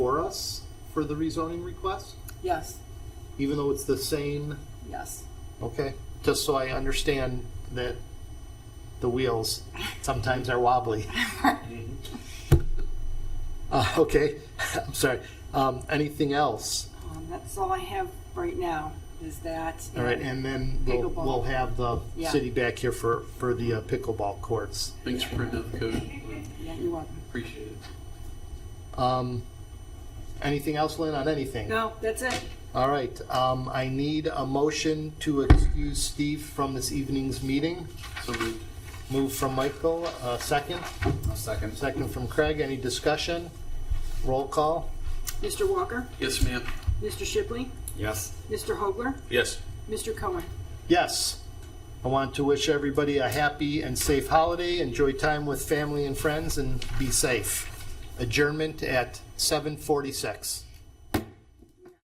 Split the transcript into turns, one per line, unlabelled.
for us for the rezoning request,
Yes,
even though it's the same?
yes.
Okay, just so I understand that the wheels sometimes are wobbly.
Mm-hmm.
Uh, okay, I'm sorry. Um, anything else?
Um, that's all I have right now, is that.
All right, and then we'll,
Pickleball.
we'll have the
Yeah.
city back here for, for the uh, pickleball courts.
Thanks for printing out the code.
Yeah, you're welcome.
Appreciate it.
Um, anything else, Lynn, on anything?
No, that's it.
All right, um, I need a motion to excuse Steve from this evening's meeting.
So moved.
Move from Michael, uh, second.
second.
Second from Craig. Any discussion? Roll call.
Mr. Walker,
Yes, ma'am.
Mr. Shipley,
Yes.
Mr. Hogler,
Yes.
Mr. Cohen.
Yes. I want to wish everybody a happy and safe holiday. Enjoy time with family and friends and be safe. Adjournment at 7:46.